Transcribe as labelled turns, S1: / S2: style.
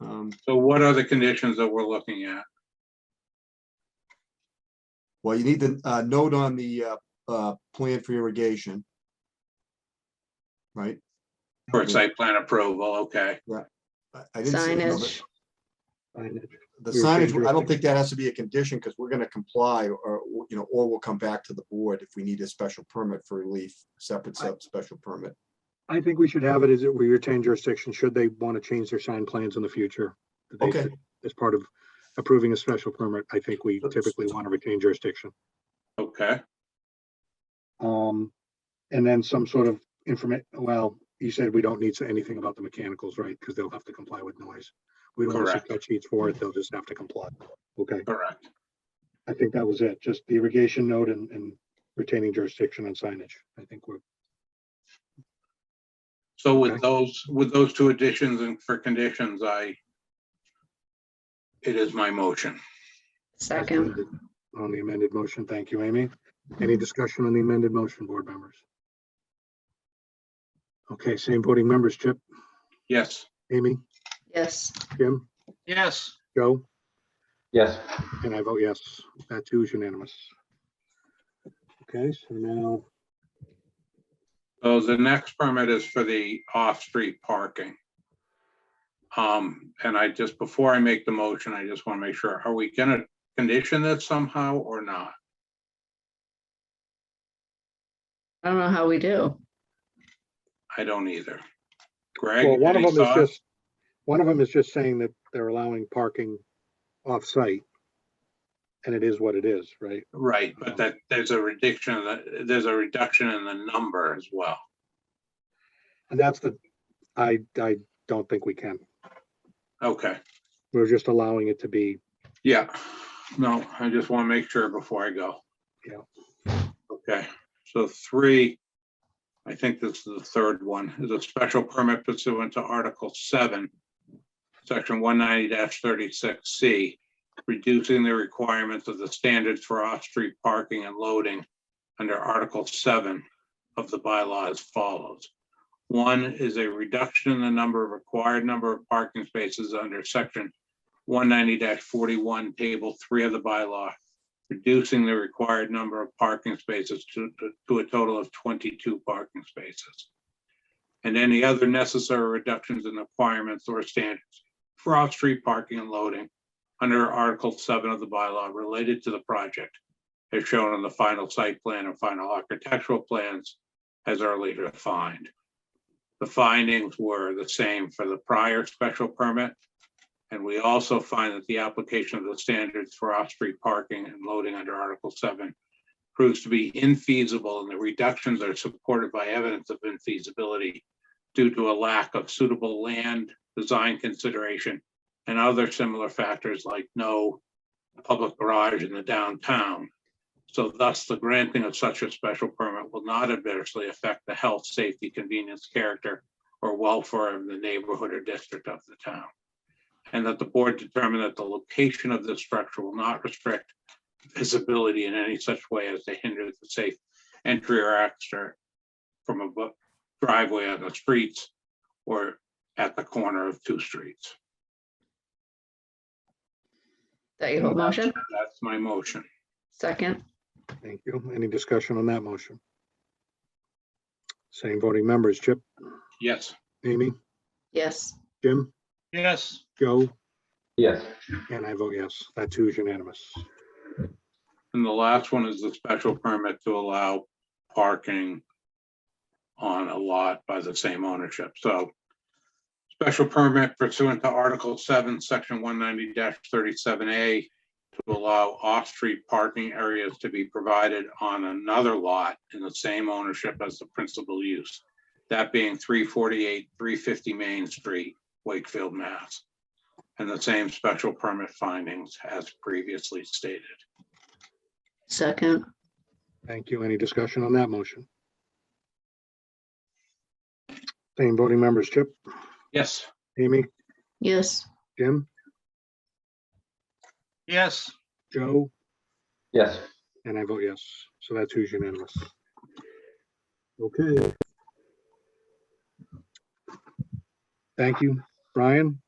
S1: Um,
S2: So what are the conditions that we're looking at?
S1: Well, you need the uh, note on the uh, uh, plan for irrigation. Right?
S2: For site plan approval, okay.
S1: I- I didn't say no,
S3: signage.
S1: but The
S4: We were saying
S1: signage, I don't
S4: drifting.
S1: think that has to be a condition because we're going to comply or, you know, or we'll come back to the board if we need a special permit for relief, separate sub special permit.
S4: I think we should have it as it, we retain jurisdiction, should they want to change their sign plans in the future. that they-
S1: Okay.
S4: As part of approving a special permit, I think we
S1: That's-
S4: typically want to retain jurisdiction.
S2: Okay,
S4: Um, and then some sort of informa, well, you said we don't need to- anything about the mechanicals, right? Because they'll have to comply with noise. We don't want to
S2: Correct.
S4: set sheets for it, they'll just have to comply. Okay,
S2: correct.
S4: I think that was it, just the irrigation note and, and retaining jurisdiction on signage. I think we're,
S2: So with
S4: Okay.
S2: those, with those two additions and for conditions, I it is my motion.
S3: Second,
S4: on the amended motion. Thank you, Amy. Any discussion on the amended motion, board members? Okay, same voting members, Chip,
S2: Yes.
S4: Amy,
S3: yes,
S4: Jim,
S2: Yes.
S4: Joe,
S5: Yes,
S4: and I vote yes. That too is unanimous. Okay, so now,
S2: So the next permit is for the off-street parking. Um, and I just, before I make the motion, I just want to make sure, are we gonna condition this somehow or not?
S3: I don't know how we do.
S2: I don't either. Greg?
S4: well, one of
S2: any
S4: them is
S2: thoughts?
S4: just, one of them is just saying that they're allowing parking off-site. And it is what it is, right?
S2: Right, but that, there's a reduction, in the- there's a reduction in the number as well.
S4: And that's the, I, I don't think we can.
S2: Okay,
S4: We're just allowing it to be
S2: yeah. No, I just want to make sure before I go.
S4: Yeah.
S2: Okay, so three, I think this is the third one, is a special permit pursuant to Article seven, Section one ninety thirty-six C, reducing the requirements of the standards for off-street parking and loading under Article seven of the bylaw as follows. One is a reduction in the number of required number of parking spaces under Section one ninety forty-one, Table three of the bylaw, reducing the required number of parking spaces to, to- to a total of twenty-two parking spaces. And any other necessary reductions in requirements or standards for off-street parking and loading under Article seven of the bylaw related to the project, as shown on the final site plan and final architectural plans as earlier defined. The findings were the same for the prior special permit and we also find that the application of the standards for off-street parking and loading under Article seven proves to be infeasible and the reductions are supported by evidence of infeasibility due to a lack of suitable land, design consideration, and other similar factors like no public garage in the downtown. So thus, the granting of such a special permit will not adversely affect the health, safety, convenience, character, or welfare of the neighborhood or district of the town and that the board determine that the location of this structure will not restrict visibility in any such way as to hinder the safe entry or exit from a bu- driveway on the streets or at the corner of two streets.
S3: That your whole motion?
S2: That's my motion.
S3: Second,
S4: Thank you. Any discussion on that motion? Same voting members, Chip,
S2: Yes.
S4: Amy,
S3: yes,
S4: Jim,
S2: Yes.
S4: Joe,
S5: yes,
S4: and I vote yes. That too is unanimous.
S2: And the last one is the special permit to allow parking on a lot by the same ownership, so. Special permit pursuant to Article seven, section one ninety thirty-seven A to allow off-street parking areas to be provided on another lot in the same ownership as the principal use. That being three forty-eight, three fifty Main Street, Wakefield, Mass. And the same special permit findings as previously stated.
S3: second,
S4: Thank you. Any discussion on that motion? Same voting members, Chip,
S2: Yes.
S4: Amy,
S3: yes,
S4: Jim,
S2: Yes.
S4: Joe,
S5: yes.
S4: and I vote yes. So that too is unanimous. Okay. Thank you, Brian.